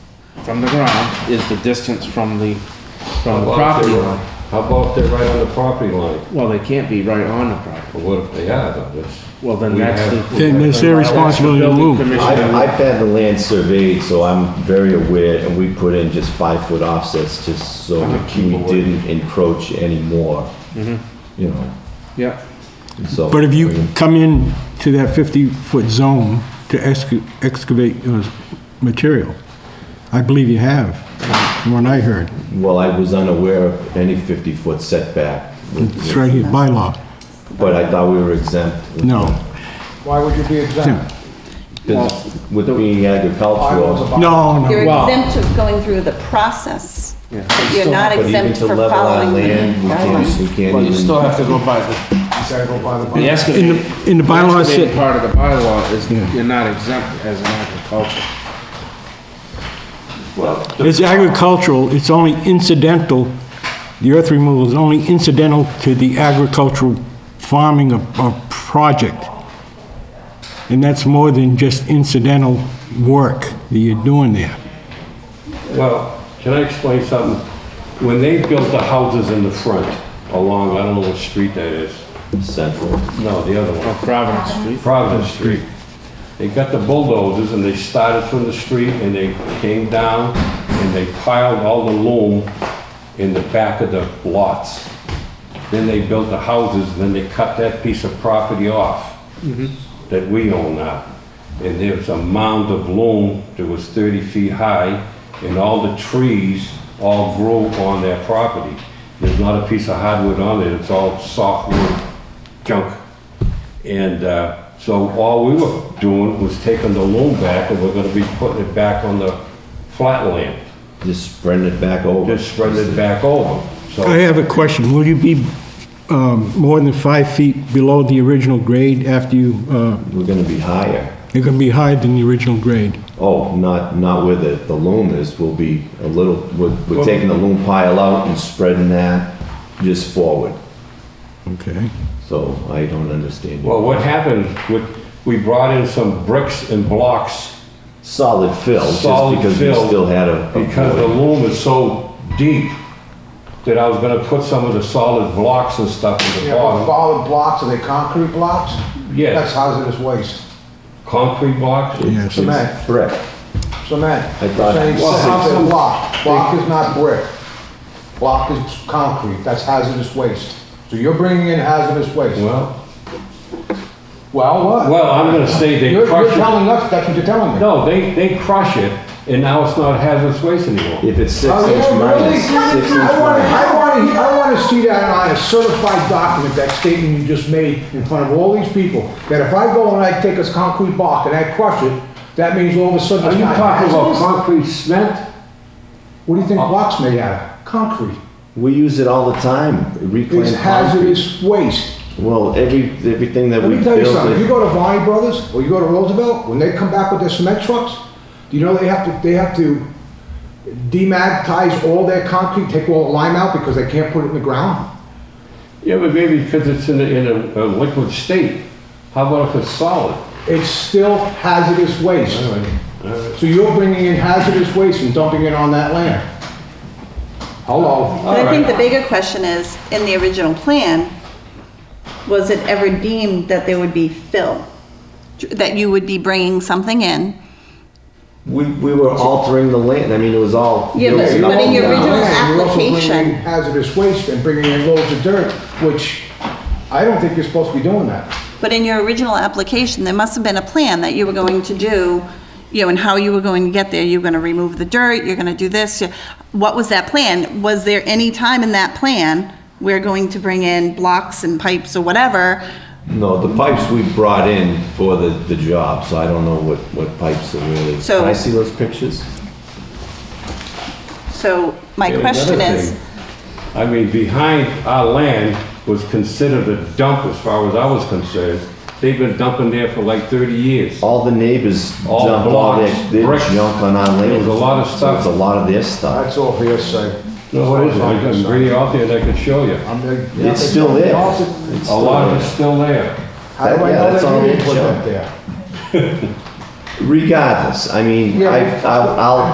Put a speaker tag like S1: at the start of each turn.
S1: from the ground is the distance from the,
S2: How
S1: from the
S2: about if
S1: property
S2: they're-
S1: line.
S2: How about if they're right on the property line?
S1: Well, they can't be right on the property.
S2: Well, what if they are, though? That's-
S1: Well, then
S2: we
S1: that's
S2: have-
S1: the.
S3: Then it's their responsibility to
S1: Building
S3: move.
S1: commissioner.
S4: I- I've had the land surveyed, so I'm very aware, and we put in just five-foot offsets just so that we didn't encroach anymore.
S1: Mm-hmm.
S4: You know,
S1: Yeah,
S4: so.
S3: But if
S4: I
S3: you
S4: mean,
S3: come in to that 50-foot zone to exca- excavate uh, material, I believe you have, from what I heard.
S4: Well, I was unaware of any 50-foot setback,
S3: It's right here, by law.
S4: but I thought we were exempt.
S3: No.
S5: Why would you be exempt?
S4: Because With being agricultural.
S3: No, no.
S6: You're
S1: Wow.
S6: exempt of going through the process,
S1: Yeah.
S6: but you're not
S4: But even
S6: exempt
S4: to
S6: for
S4: level our
S6: following the
S4: land, we can't, we
S6: guidelines.
S4: can't
S1: well, you still
S4: even,
S1: have to go by the,
S5: You gotta go by the
S1: the
S5: bylaw.
S3: In
S1: excavated.
S3: the, in the bylaw, it
S1: excavated
S3: said-
S1: Part of the bylaw is
S3: Yeah.
S1: you're not exempt as an agriculture.
S3: it's agricultural, it's only incidental, the earth removal is only incidental to the agricultural farming of, of project. And that's more than just incidental work that you're doing there.
S2: Well, can I explain something? When they built the houses in the front along, I don't know what street that is.
S4: central.
S2: No, the other
S1: Well,
S2: one,
S1: Providence Street.
S2: Providence Street. They got the bulldozers and they started from the street and they came down and they piled all the loom in the back of the lots. Then they built the houses, then they cut that piece of property off that we own now. And there was a mound of loam that was 30 feet high, and all the trees all grow on that property. There's not a piece of hardwood on it, it's all softwood junk. And uh, so all we were doing was taking the loam back, and we're gonna be putting it back on the flat land,
S4: Just spreading it back over.
S2: just spreading it back over. So
S3: I have a question. Will you be um, more than five feet below the original grade after you, uh,
S4: We're gonna be higher.
S3: you're going to be higher than the original grade?
S4: Oh, not, not with it. The loom is, will be a little, we're, we're taking the loom pile out and spreading that just forward.
S3: Okay.
S4: So I don't understand. you.
S2: Well, what happened, with- we brought in some bricks and blocks
S4: Solid fill, just
S2: Solid
S4: because we
S2: fill,
S4: still had a. a
S2: because the
S4: void.
S2: loom is so deep that I was gonna put some of the solid blocks and stuff in the
S5: Yeah, but
S2: bottom.
S5: solid blocks, are they concrete blocks?
S2: Yes.
S5: That's hazardous waste.
S2: Concrete blocks?
S3: Yes.
S5: Cement,
S4: Brick.
S5: cement.
S4: I thought-
S5: Saying
S4: Well,
S5: something block. Block is not brick. Block is concrete, that's hazardous waste. So you're bringing in hazardous waste.
S2: Well,
S5: Well, what?
S2: well, I'm gonna say they
S5: You're, you're
S2: crush
S5: telling us, that's what you're telling me.
S2: it. No, they, they crush it, and now it's not hazardous waste anymore.
S4: If it's six
S5: Oh,
S4: inch
S5: yeah,
S4: minus,
S5: really?
S4: six inch
S5: I want,
S4: minus.
S5: I want, to- I want to see that on a certified document, that statement you just made in front of all these people, that if I go and I take this concrete block and I crush it, that means all of a sudden
S2: Are
S5: it's
S2: you
S5: not
S2: talking about
S5: hazardous?
S2: concrete cement?
S5: What do you think
S4: Uh-huh.
S5: blocks made out of? Concrete.
S4: We use it all the time,
S5: It's
S4: reclaimed concrete.
S5: hazardous waste.
S4: Well, every, everything that
S5: Let
S4: we
S5: me tell you something, if you
S4: build,
S5: go to Vine Brothers, or you go to Roosevelt, when they come back with their cement trucks, do you know they have to, they have to demagnetize all their concrete, take all the lime out because they can't put it in the ground?
S2: Yeah, but maybe because it's in a, in a a liquid state. How about if it's solid?
S5: It's still hazardous waste. So you're bringing in hazardous waste and dumping it on that land. Hello?
S6: But I think the bigger question is, in the original plan, was it ever deemed that there would be fill? That you would be bringing something in?
S4: we, we were altering the land, I mean, it was all.
S6: Yeah, but-
S4: built up
S6: but in
S4: and
S6: your
S4: down.
S6: original
S5: Yeah, you're also bringing
S6: application-
S5: in Hazardous waste and bringing in loads of dirt, which I don't think you're supposed to be doing that.
S6: But in your original application, there must have been a plan that you were going to do, you know, and how you were going to get there. You're gonna remove the dirt, you're gonna do this. you- What was that plan? Was there any time in that plan, we're going to bring in blocks and pipes or whatever?
S4: No, the pipes we brought in for the, the job, so I don't know what, what pipes are really.
S6: So-
S4: Can I see those pictures?
S6: So my
S2: And another
S6: question is,
S2: thing, I mean, behind our land was considered a dump as far as I was concerned. They've been dumping there for like 30 years.
S4: All the neighbors
S2: All
S4: dump all their,
S2: blocks,
S4: their
S2: bricks.
S4: junk on our land.
S2: There's a lot of
S4: So
S2: stuff.
S4: It's a lot of their stuff.
S5: That's all hearsay.
S2: No, what is it? I can bring you out there and I can show you.
S5: I'm like, yeah,
S4: It's
S5: they
S4: still
S5: told me
S4: there.
S5: all to-
S4: It's
S2: A
S4: still
S2: lot of
S4: there.
S2: it's still there.
S5: How do
S4: That-
S5: I
S4: yeah,
S5: know
S4: that's
S5: that
S4: on
S5: you
S4: the
S5: didn't put
S4: agenda.
S5: that there?
S4: Regardless, I mean,
S5: Yeah.
S4: I, I'll, I'll